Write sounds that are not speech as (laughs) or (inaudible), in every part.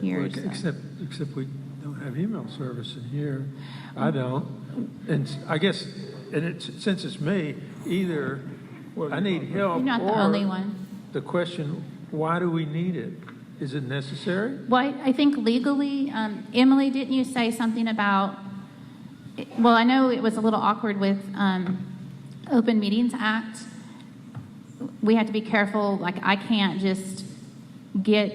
here. Like, so- Except, except we don't have email service in here. I don't. And s- I guess, and it's, since it's me, either I need help You're not the or only one. The question, why do we need it? Is it necessary? Well, I- I think legally, um, Emily, didn't you say something about, well, I know it was a little awkward with um, Open Meetings Act. We had to be careful, like, I can't just get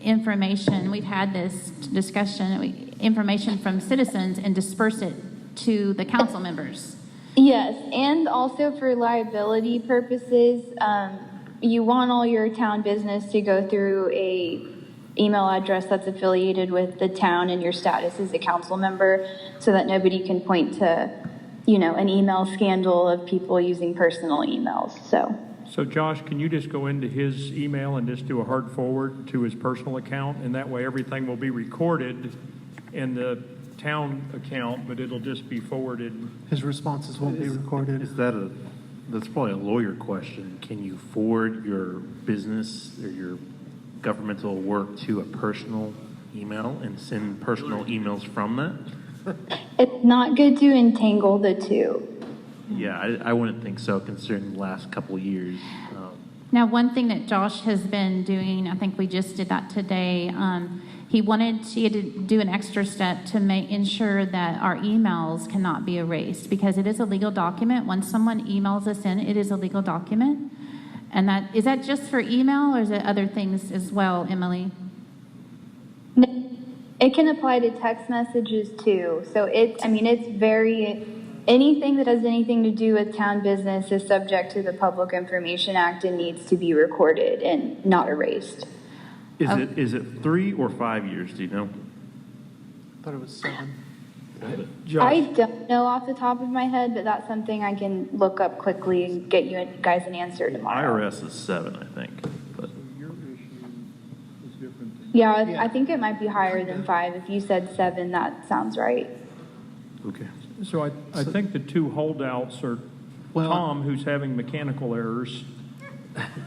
information, we've had this discussion, we- information from citizens and disperse it to the council members. Yes, and also for liability purposes, um, you want all your town business to go through a email address that's affiliated with the town and your status as a council member, so that nobody can point to, you know, an email scandal of people using personal emails. So, So Josh, can you just go into his email and just do a hard forward to his personal account? And that way, everything will be recorded in the town account, but it'll just be forwarded. His responses won't be recorded. Is that a, that's probably a lawyer question. Can you forward your business or your governmental work to a personal email and send personal emails from that? it's not good to entangle the two. Yeah, I, I wouldn't think so considering the last couple of years. Um, Now, one thing that Josh has been doing, I think we just did that today, um, he wanted, he had to do an extra step to make, ensure that our emails cannot be erased, because it is a legal document. Once someone emails us in, it is a legal document. And that, is that just for email, or is it other things as well, Emily? It can apply to text messages too. So it's, I mean, it's very, anything that has anything to do with town business is subject to the Public Information Act and needs to be recorded and not erased. Is it, is Oh. it three or five years, do you know? I thought it was seven. I Josh, don't know off the top of my head, but that's something I can look up quickly and get you guys an answer tomorrow. IRS is seven, I think, but. Yeah, I- I think it might be higher than five. If you said seven, that sounds right. Okay. So I, I think the two holdouts are Well- Tom, who's having mechanical errors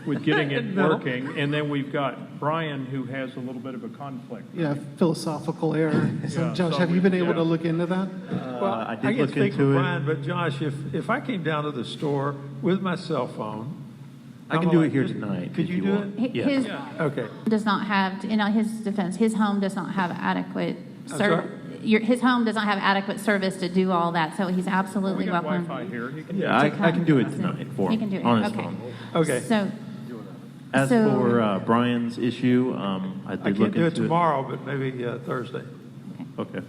with getting (laughs) it No. working, and then we've got Brian, who has a little bit of a conflict. Yeah, philosophical error. (laughs) So Yeah, Josh, so have you we- been able to yeah. look into that? well, I I did can look speak into for it. Brian, but Josh, if, if I came down to the store with my cell phone. I can I'm do like, it here just- tonight Could if you you do want. it? Hi- Yeah. His Okay. does not have, in his defense, his home does not have adequate I'm ser- your, his home does not have adequate service to do all that, so he's We absolutely got welcome. Wi-Fi here. He can- Yeah, I, to I can do it come. tonight for You him. can do it, On his okay. phone. Okay. So, As So- for uh, Brian's issue, um, I did I look can't do it into tomorrow, but maybe uh, Thursday. Okay.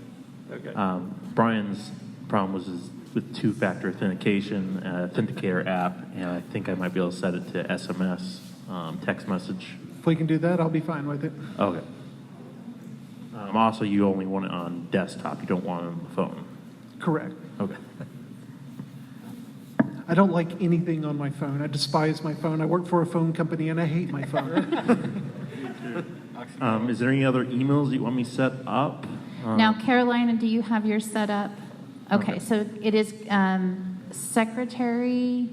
Okay. Um, Brian's problem was his, with two-factor authentication, uh, Authenticator app, and I think I might be able to set it to SMS, um, text message. If we can do that, I'll be fine with it. Okay. Um, also, you only want it on desktop. You don't want it on the phone. Correct. Okay. I don't like anything on my phone. I despise my phone. I work for a phone company and I hate my phone. Um, is there any other emails that you want me set up? Um, Now, Carolina, do you have yours set up? Okay, so it is um, secretary.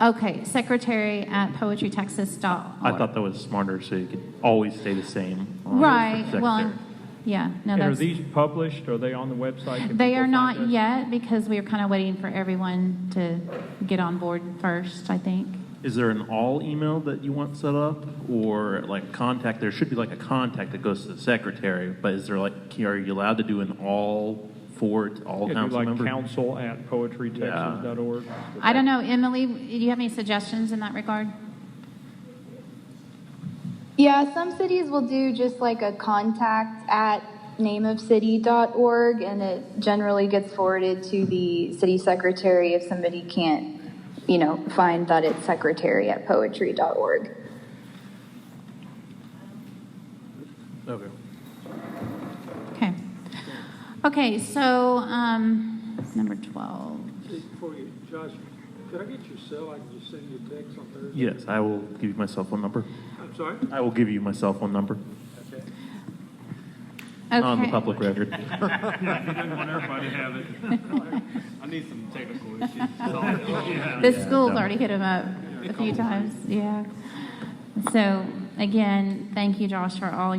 Okay, secretary at I poetrytexas.org. thought that was smarter, so you could always stay the same. on the Right, well, secretary. yeah, no, And are that's, these published? Are they on the website? Can they people are find not us? yet because we are kind of waiting for everyone to get on board first, I think. Is there an all email that you want set up or like contact? There should be like a contact that goes to the secretary, but is there like, are you allowed to do an all for it, all Yeah, do council like member? council at poetrytexas.org. I don't know, Emily, do you have any suggestions in that regard? Yeah, some cities will do just like a contact at nameofcity.org, and it generally gets forwarded to the city secretary if somebody can't, you know, find that it's secretary at poetry.org. Okay. Okay. Okay, so, um, number 12. Before you, Josh, could I get your cell? I can just send you a text on Thursday. Yes, I will give you my cell phone number. I'm sorry? I will give you my cell phone number Okay. on Um, the Okay. public record. I need some technical issues. The school's already hit him up a few times, yeah. So, again, thank you, Josh, for all your.